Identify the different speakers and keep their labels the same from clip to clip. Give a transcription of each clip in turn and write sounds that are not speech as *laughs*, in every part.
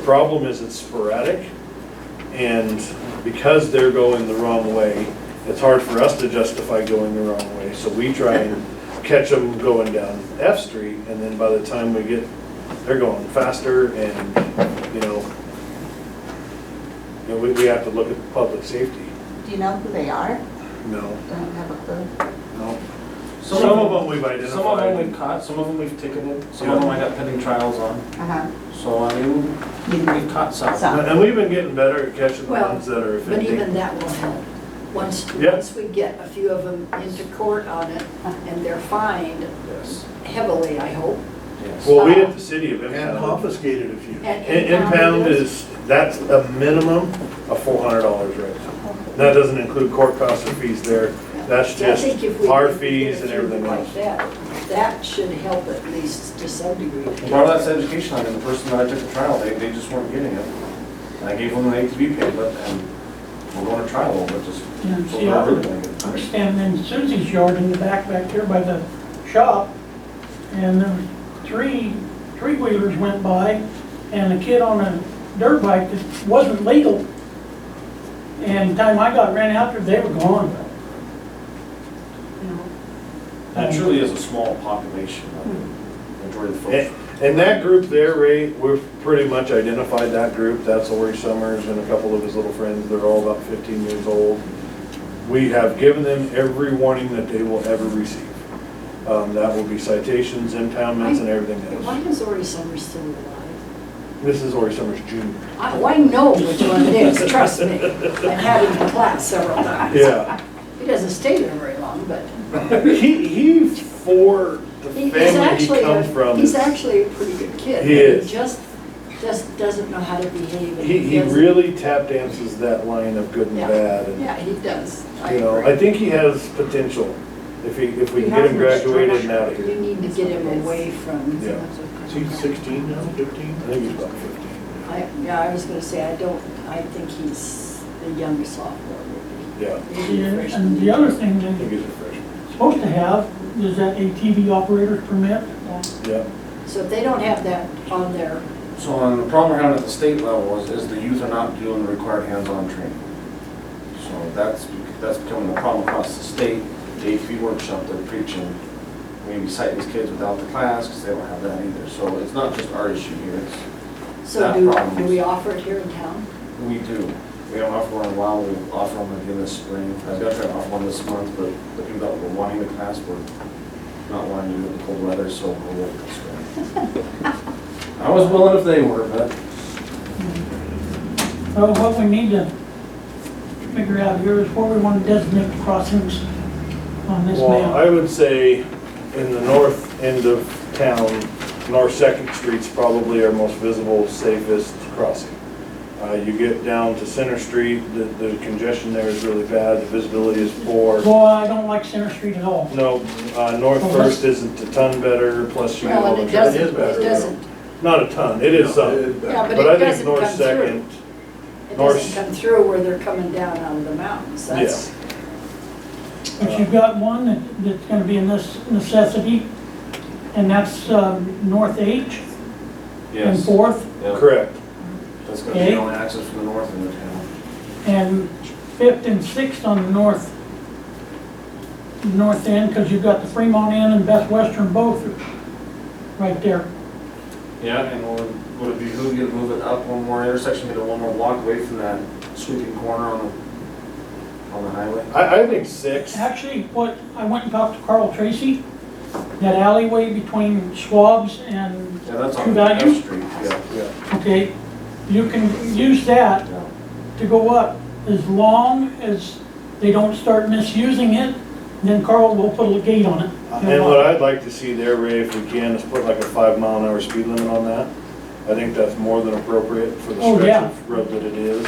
Speaker 1: problem is it's sporadic, and because they're going the wrong way, it's hard for us to justify going the wrong way, so we try
Speaker 2: *laughs*
Speaker 1: and catch them going down F Street, and then by the time we get, they're going faster, and, you know, you know, we, we have to look at public safety,
Speaker 3: Do you know who they are?
Speaker 1: no,
Speaker 3: Don't have a clue.
Speaker 1: no. Some of them we've
Speaker 4: Some of them we've
Speaker 1: identified,
Speaker 4: caught, some of them we've ticketed, some of them I got pending trials on.
Speaker 3: Uh-huh.
Speaker 4: So I mean,
Speaker 3: You know,
Speaker 4: we've caught some.
Speaker 3: Some.
Speaker 1: and we've been getting better at catching the
Speaker 2: Well,
Speaker 1: ones that are
Speaker 2: But even
Speaker 1: offending.
Speaker 2: that will help. Once,
Speaker 1: Yeah.
Speaker 2: once we get a few of them into court on it and they're fined
Speaker 4: Yes,
Speaker 2: heavily, I hope.
Speaker 4: yes.
Speaker 1: Well, we at the city of
Speaker 5: And
Speaker 1: impound,
Speaker 5: confiscated a few.
Speaker 2: and
Speaker 1: I- impound is, that's a minimum of four hundred dollars right now. That doesn't include court costs or fees there, that's
Speaker 2: So I
Speaker 1: just
Speaker 2: think if we
Speaker 1: our
Speaker 2: can get a
Speaker 1: fees and
Speaker 2: few
Speaker 1: everything
Speaker 2: like
Speaker 1: else.
Speaker 2: that, That should help at least to some degree.
Speaker 4: And Part of that's education, I mean, the person that I took to trial, they, they just weren't getting it. And I gave them an ATV pamphlet and we're going to trial, but just, so they're really gonna get
Speaker 6: I was
Speaker 4: punished.
Speaker 6: standing in Susie's yard in the back, back there by the shop, and there was three, three wheelers went by, and a kid on a dirt bike that wasn't legal. And the time I got ran after, they were gone.
Speaker 4: That truly is a small population, I mean, majority of the
Speaker 1: And,
Speaker 4: folks.
Speaker 1: and that group there, Ray, we've pretty much identified that group, that's Lori Summers and a couple of his little friends, they're all about fifteen years old. We have given them every warning that they will ever receive. Um, that will be citations, impoundments, and everything
Speaker 2: Why
Speaker 1: else.
Speaker 2: is Ori Summers still alive?
Speaker 1: This is Lori Summers Junior.
Speaker 2: I, well, I know which one it is, trust me. I've had him in class several times.
Speaker 1: Yeah.
Speaker 2: He doesn't stay there very long, but
Speaker 1: He, he, for the
Speaker 2: he- he's
Speaker 1: family he
Speaker 2: actually,
Speaker 1: comes
Speaker 2: a-
Speaker 1: from,
Speaker 2: he's
Speaker 1: is-
Speaker 2: actually a pretty good kid.
Speaker 1: He is.
Speaker 2: Just, just doesn't know how to behave. and
Speaker 1: he, he
Speaker 2: doesn't-
Speaker 1: really tap dances that line of good and
Speaker 2: Yeah.
Speaker 1: bad. and
Speaker 2: Yeah, he does. I
Speaker 1: You know,
Speaker 2: agree.
Speaker 1: I think he has potential, if he, if we
Speaker 3: He
Speaker 1: can get
Speaker 3: has
Speaker 1: him
Speaker 3: a
Speaker 1: graduated and out of
Speaker 2: You
Speaker 1: here.
Speaker 2: need to get him away from.
Speaker 1: Yeah.
Speaker 5: He's 16 now, 15?
Speaker 1: I think he's about fifteen,
Speaker 2: I, yeah, I was gonna say, I don't, I think he's the young sophomore, maybe.
Speaker 1: yeah,
Speaker 2: Maybe a freshman.
Speaker 6: And the other thing
Speaker 1: I think
Speaker 6: they're
Speaker 1: he's a freshman,
Speaker 6: supposed to have is that ATV operator's permit.
Speaker 1: yeah.
Speaker 2: So if they don't have that on their,
Speaker 4: So um, the problem we're having at the state level is, is the youth are not doing the required hands-on training. So that's, bec- that's becoming a problem across the state. The ATV workshop they're preaching, maybe cite these kids without the class because they don't have that either. So it's not just our issue here, it's,
Speaker 2: so
Speaker 4: That
Speaker 2: do,
Speaker 4: problem
Speaker 2: do
Speaker 4: is-
Speaker 2: we offer it here in town?
Speaker 4: we do. We don't offer one in a while, we offer them again this spring. I was gonna try to offer one this month, but the people that were wanting the class were not wanting to do it in the cold weather, so we'll wait till spring. I was willing if they were, but
Speaker 6: Well, what we need to figure out here is where we want to designate the crossings on this map.
Speaker 1: Well, I would say in the north end of town, North Second Street's probably our most visible, safest crossing. Uh, you get down to Center Street, the, the congestion there is really bad, the visibility is poor.
Speaker 6: Well, I don't like Center Street at all.
Speaker 1: No, uh, North
Speaker 6: Well,
Speaker 1: First isn't a ton better, plus you get
Speaker 2: Well,
Speaker 1: all
Speaker 2: and
Speaker 1: the
Speaker 2: it
Speaker 1: traffic.
Speaker 2: doesn't,
Speaker 5: better, though.
Speaker 2: it doesn't,
Speaker 1: Not a ton, it is
Speaker 5: No,
Speaker 1: some,
Speaker 5: it-
Speaker 2: yeah, but
Speaker 1: but I
Speaker 2: it
Speaker 1: think
Speaker 2: doesn't
Speaker 1: North
Speaker 2: come through.
Speaker 1: Second,
Speaker 2: It
Speaker 1: North-
Speaker 2: doesn't come through where they're coming down out of the mountains, that's,
Speaker 6: But you've got one that, that's gonna be a nece- necessity, and that's, um, North H and
Speaker 4: yes.
Speaker 6: Fourth,
Speaker 4: Yep.
Speaker 1: correct.
Speaker 4: That's gonna be the only access from the north end of town.
Speaker 6: and Fifth and Sixth on the north, north end, cause you've got the Fremont Inn and Best Western both right there.
Speaker 4: Yeah. And would, would it behoove you to move it up one more intersection, get it one more block away from that sweeping corner on the, on the highway?
Speaker 1: I, I think six,
Speaker 6: Actually, what, I went and talked to Carl Tracy, that alleyway between Schwab's and
Speaker 4: Yeah, that's
Speaker 6: Two
Speaker 4: on
Speaker 6: values?
Speaker 4: F Street, yeah.
Speaker 1: yeah,
Speaker 6: okay, you can use that
Speaker 4: yeah.
Speaker 6: to go up as long as they don't start misusing it, then Carl will put a gate on it.
Speaker 1: and what I'd like to see there, Ray, if we can, is put like a five mile an hour speed limit on that. I think that's more than appropriate for the
Speaker 6: Oh,
Speaker 1: stretch
Speaker 6: yeah.
Speaker 1: of road that it is.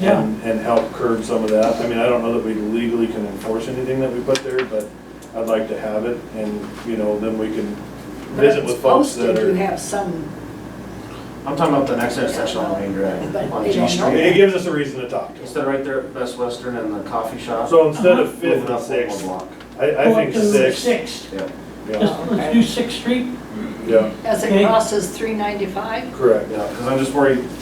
Speaker 6: Yeah,
Speaker 1: And, and help curb some of that, I mean, I don't know that we legally can enforce anything that we put there, but I'd like to have it, and, you know, then we can
Speaker 2: but
Speaker 1: visit
Speaker 2: it's
Speaker 1: with folks
Speaker 2: posted,
Speaker 1: that
Speaker 2: you
Speaker 1: are.
Speaker 2: have some,
Speaker 4: I'm talking about the next intersection on Main Drive,
Speaker 2: But
Speaker 4: on
Speaker 2: they
Speaker 4: G
Speaker 2: don't know
Speaker 1: It
Speaker 4: Street.
Speaker 2: that.
Speaker 1: gives us a reason to talk to them.
Speaker 4: Instead of right there at Best Western and the coffee shop.
Speaker 1: So instead
Speaker 6: Uh-huh.
Speaker 1: of
Speaker 4: move it
Speaker 1: fifth
Speaker 4: up
Speaker 1: and
Speaker 4: one
Speaker 1: sixth,
Speaker 4: more block.
Speaker 1: I, I
Speaker 6: Go up
Speaker 1: think
Speaker 6: to
Speaker 1: six,
Speaker 6: Sixth,
Speaker 4: Yeah,
Speaker 1: yeah,
Speaker 6: just, let's do Sixth Street,
Speaker 1: yeah,
Speaker 2: as it
Speaker 6: Okay.
Speaker 2: crosses three ninety-five?
Speaker 1: correct.
Speaker 4: yeah, because I'm just worried